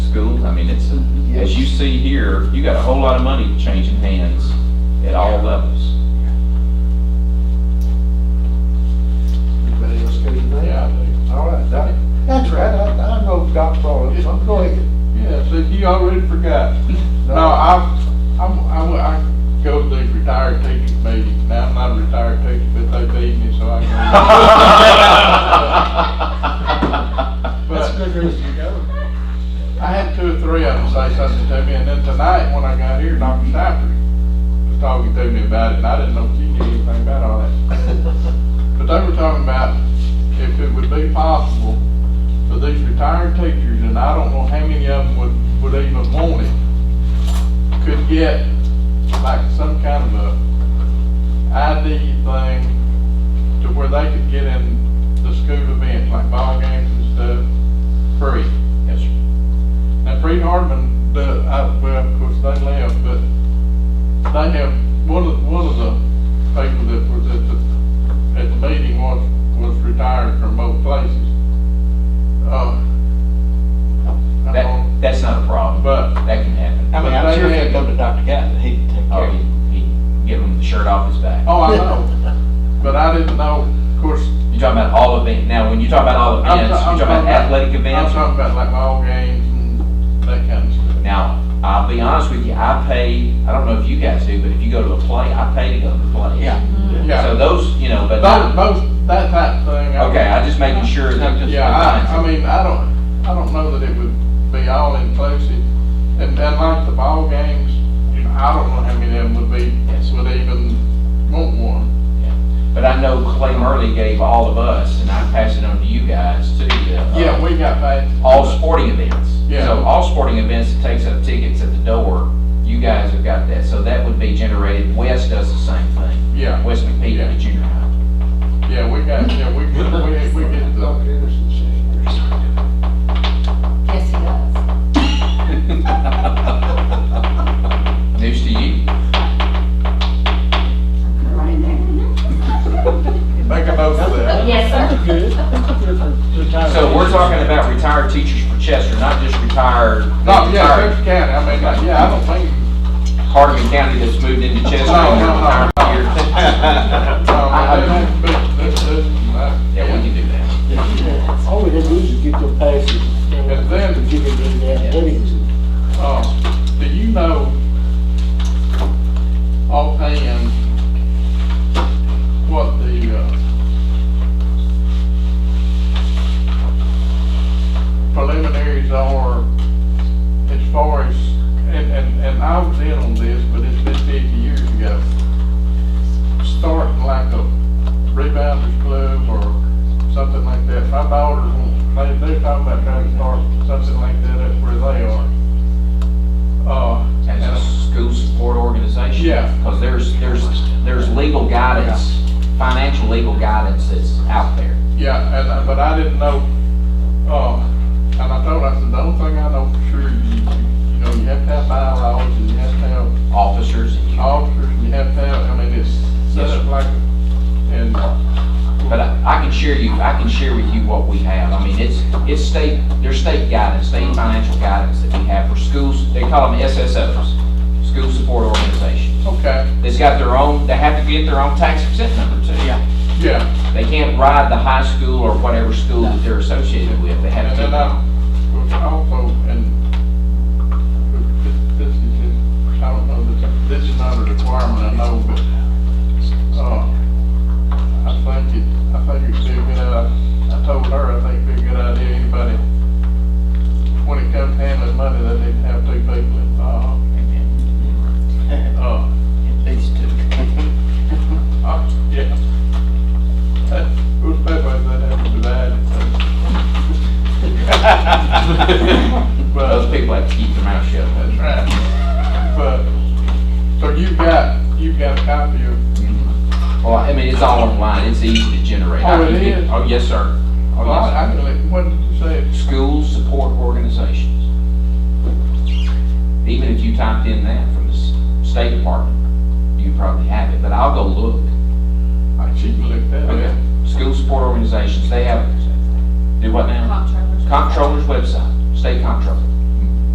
I mean, it's, a- as you see here, you got a whole lot of money changing hands at all levels. Anybody else got anything? Yeah, I do. All right, that, that's right, I, I know Doc brought it, so I'm going. Yeah, so you already forgot. No, I, I'm, I, wa- I go to the retired teacher meeting. Now, I'm not a retired teacher, but they beat me, so I go. That's a good reason to go. I had two or three of them say something to me, and then tonight, when I got here, Dr. Stafford was talking to me about it, and I didn't know she knew anything about all that. But they were talking about if it would be possible for these retired teachers, and I don't know how many of them would, would even want it, could get like some kind of a ID thing to where they could get in the school events, like ball games and stuff, free. Yes, sir. Now, Fred Hardman, the, I, well, of course, they left, but they have, one of, one of the people that was at the, at the meeting was, was retired from both places. Uh, I don't, That, that's not a problem, but, that can happen. I mean, I'm sure if they go to Dr. Guy, he'd take care Oh, of you. he, he give him the shirt off his back. oh, I know, but I didn't know, of course, You're talking about all events, now, when you talk about all I'm events, ta- you're I'm talking about athletic I'm events. talking about like ball games and that kind of stuff. Now, I'll be honest with you, I pay, I don't know if you guys do, but if you go to a play, I pay to go to the play. Yeah. So Yeah, those, you know, but, not- both, both, that type of thing. I- okay, I'm just making sure that. Yeah, I, I mean, I don't, I don't know that it would be all inclusive. And then like the ball games, you know, I don't know how many of them would be, Yes. would even want one. But I know Clay Murley gave all of us, and I pass it on to you guys too, the, uh, Yeah, we got that. all sporting events. Yeah. So all sporting events, it takes up tickets at the door. You guys have got that, so that would be generated. West does the same thing. Yeah, West McPeak at the junior high. yeah, we got, yeah, we, get- we, we get the, Dr. Anderson senior. Yes, he does. Oh, News to you. Right there. make a note of that. Yes, sir. Good. Oh, So we're talking about retired teachers for Chester, not just retired, No, Oh, yeah, retired Cook County, I mean, like, yeah, I don't think, Hardin County that's moved into Chester. No, and Oh, no, they're no. retired here. I- I no, don't- Um, but, but, but, Yeah, we yeah. can do that. All we had to do is get your passes. And then- Give it in the athletics. Uh, do you know offhand what the, uh, preliminaries are as far as, and, and, and I was in on this, but it's been fifty years ago. Start like a rebounders club or something like that. My daughters, they, they're talking about trying to start something like that up where they are. Uh, as and- a school support organization? Yeah. Because there's, there's, there's legal guidance, financial legal guidance that's out there. Yeah, and, uh, but I didn't know, uh, and I told her, I said, the only thing I know for sure, you, you know, you have to have bylaws, and you have to have Officers and you, officers, and you have to have, I mean, it's set up like, and, but I, I can share you, I can share with you what we have. I mean, it's, it's state, there's state guidance, state financial guidance that we have for schools, they call them SSOs, school support organizations. okay, It's got their own, they have to get their own tax exempt number too. Yeah. yeah. They can't ride the high school or whatever school that they're associated with, they have And to. then I was also, and this is, just- I don't know, that this is not a requirement, I know, but, uh, I think it, I think it'd be a good, idea. I told her, I think it'd be a good idea, anybody, when it comes to handling money, they need to have two people involved. Uh, These two. uh, yeah. That, who's paid by that, have to divide it. But- Those people have to keep their mouth shut. That's right. But, so you've got, you've got a copy of, Well, I mean, it's all online, it's easy to generate. Oh, I can it get- is? Oh, yes, sir. Oh, well, I, yes, I can let- what did you say? sir. School support organizations. Even if you typed in that from the s- State Department, you probably have it, but I'll go look. I cheap looked at Okay. it. School support organizations, they have, do what now? Comptroller. Comptroller's website, state comptroller.